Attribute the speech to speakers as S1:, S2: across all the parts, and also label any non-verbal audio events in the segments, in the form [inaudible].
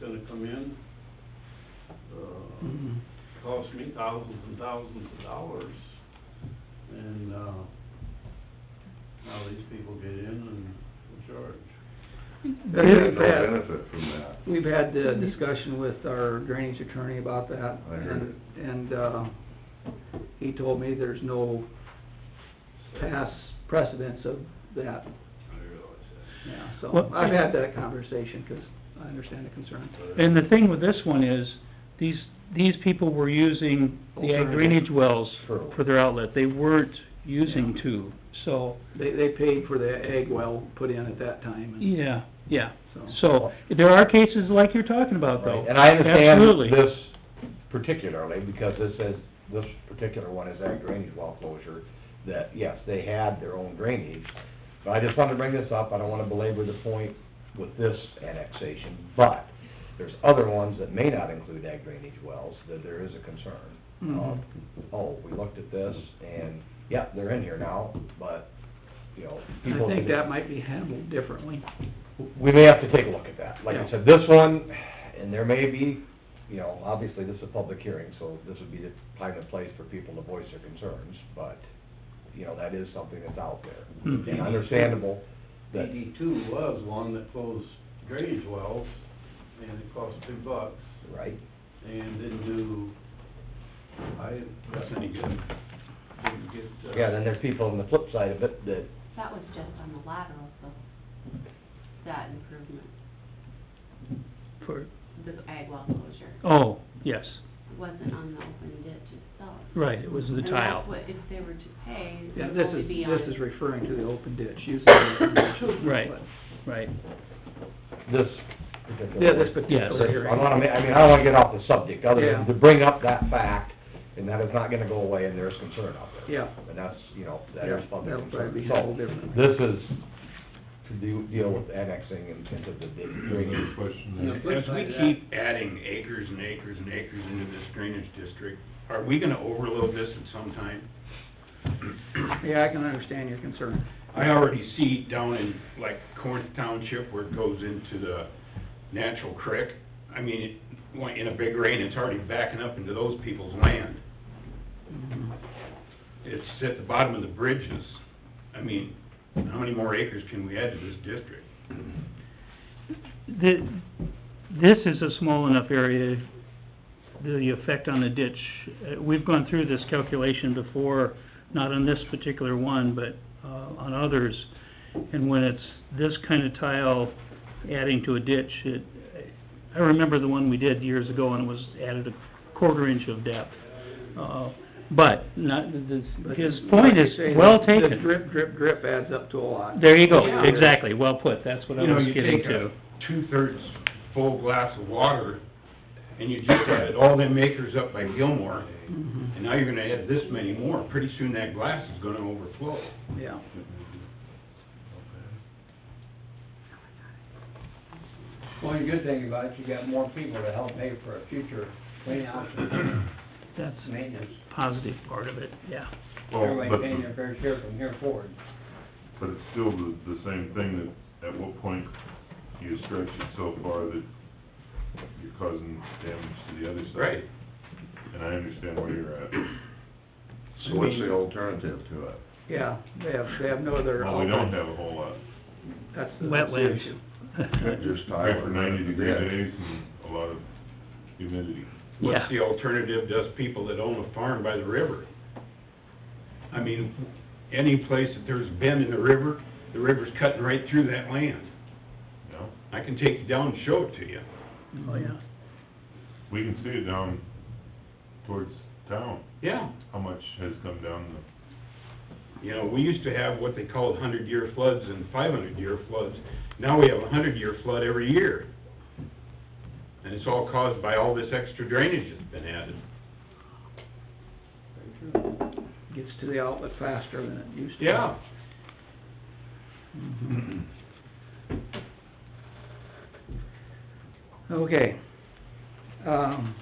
S1: gonna come in, uh, cost me thousands and thousands of dollars. And, uh, now these people get in and will charge.
S2: There's
S3: There's
S2: no
S3: that.
S2: benefit from that.
S3: We've had the discussion with our drainage attorney about that.
S2: I heard
S3: And, and, uh, he told me there's no past precedence of that,
S1: I realize
S3: yeah, so
S4: Well,
S3: I've had that conversation, 'cause I understand the concerns.
S1: that.
S4: And the thing with this one is, these, these people were using the ag drainage wells
S2: True.
S4: for their outlet. They weren't using
S3: Yeah.
S4: two, so,
S3: They, they paid for the egg well put in at that time, and
S4: yeah, yeah.
S3: so.
S4: So, there are cases like you're talking about though.
S5: Right, And I understand
S4: Absolutely.
S5: this particularly, because this is, this particular one is that drainage well closure, that, yes, they had their own drainage. But I just wanted to bring this up, I don't wanna belabor the point with this annexation, but there's other ones that may not include ag drainage wells, that there is a concern of,
S3: Mhm.
S5: oh, we looked at this, and, yeah, they're in here now, but, you know,
S3: And
S5: people...
S3: I think that might be handled differently.
S5: we may have to take a look at that. Like
S3: Yeah.
S5: I said, this one, and there may be, you know, obviously this is a public hearing, so this would be the time and place for people to voice their concerns, but, you know, that is something that's out there.
S4: Hmm.
S5: And understandable that,
S1: DD two was one that closed drainage wells, and it cost two bucks,
S5: right?
S1: and didn't do, I, that's any good. Didn't get, uh,
S5: Yeah, then there's people on the flip side of it that,
S6: That was just on the lateral, so, that improvement,
S4: For-
S6: the ag well closure,
S4: Oh, yes,
S6: wasn't on the open ditch itself.
S4: right, it was the
S6: And that's
S4: tile.
S6: what, if they were to pay,
S3: Yeah,
S6: it
S3: this
S6: would only
S3: is,
S6: be on.
S3: this is referring to the open ditch, using the open ditch.
S4: Right. Right,
S5: this particular.
S3: Yeah, this
S5: one-
S4: particular
S3: particular
S4: hearing.
S3: hearing.
S5: I wanna, ma- I mean, I don't wanna get off the subject, other
S3: Yeah.
S5: than to bring up that fact, and that is not gonna go away, and there's concern out there.
S3: Yeah.
S5: And that's, you know, that
S3: Yeah,
S5: is public
S3: that'll probably
S5: concern.
S3: be
S5: So,
S3: handled differently.
S5: this is to do, deal with annexing and into the drainage.
S1: Yeah.
S7: As we keep adding acres and acres and acres into this drainage district, are we gonna overload this at some time?
S3: Yeah, I can understand your concern.
S7: I already see down in, like, Corinth Township where it goes into the natural creek. I mean, it- when- in a big rain, it's already backing up into those people's land. It's at the bottom of the bridges. I mean, how many more acres can we add to this district?
S4: Th this is a small enough area, the effect on the ditch, uh, we've gone through this calculation before, not on this particular one, but, uh, on others. And when it's this kind of tile adding to a ditch, it, I remember the one we did years ago and it was added a quarter inch of depth. Uh, but, not, this,
S3: But
S4: his
S3: like
S4: point
S3: you
S4: is
S3: say,
S4: well
S3: the-
S4: taken.
S3: The drip, drip, drip adds up to a lot.
S4: There you go,
S7: Yeah.
S4: exactly, well put, that's what I
S7: You know,
S4: was
S7: you
S4: getting
S7: take
S4: to.
S7: a two-thirds full glass of water, and you just added all them acres up by Gilmore,
S3: Mhm.
S7: and now you're gonna add this many more, pretty soon that glass is gonna overflow.
S3: Yeah.
S8: One good thing about it, you got more people to help pay for a future clean out and
S4: That's
S8: maintenance.
S4: a positive part of it, yeah.
S8: Everybody paying their fair share from here forward.
S9: But it's still the, the same thing that, at what point you stretch it so far that you're causing damage to the other side.
S7: Right.
S9: And I understand where you're at.
S2: So what's the alternative to it?
S3: Yeah, they have, they have no other.
S9: Well, we don't have a whole lot.
S3: That's the- that's the
S4: Wetlands.
S3: issue.
S4: [laughs]
S2: Just tile
S9: Except for
S2: it.
S9: ninety degree
S2: Yeah.
S9: days and a lot of humidity.
S7: What's
S4: Yeah.
S7: the alternative to us people that own a farm by the river? I mean, any place that there's a bend in the river, the river's cutting right through that land.
S9: No,
S7: I can take you down and show it to you.
S4: Oh,
S3: Mm-hmm.
S4: yeah.
S9: we can see it down towards town,
S7: Yeah.
S9: how much has come down
S7: You know, we used to have what they called hundred-year floods and five-hundred-year floods. Now we have a hundred-year flood every year. And it's all caused by all this extra drainage that's been added.
S3: Gets to the outlet faster than it used to.
S7: Yeah,
S3: Mhm. Okay. Um,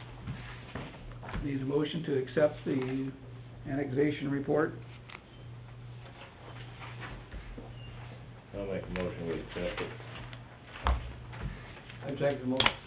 S3: Need a motion to accept the annexation report?
S5: I'll make a motion, we accept it.
S8: I'd take the motion.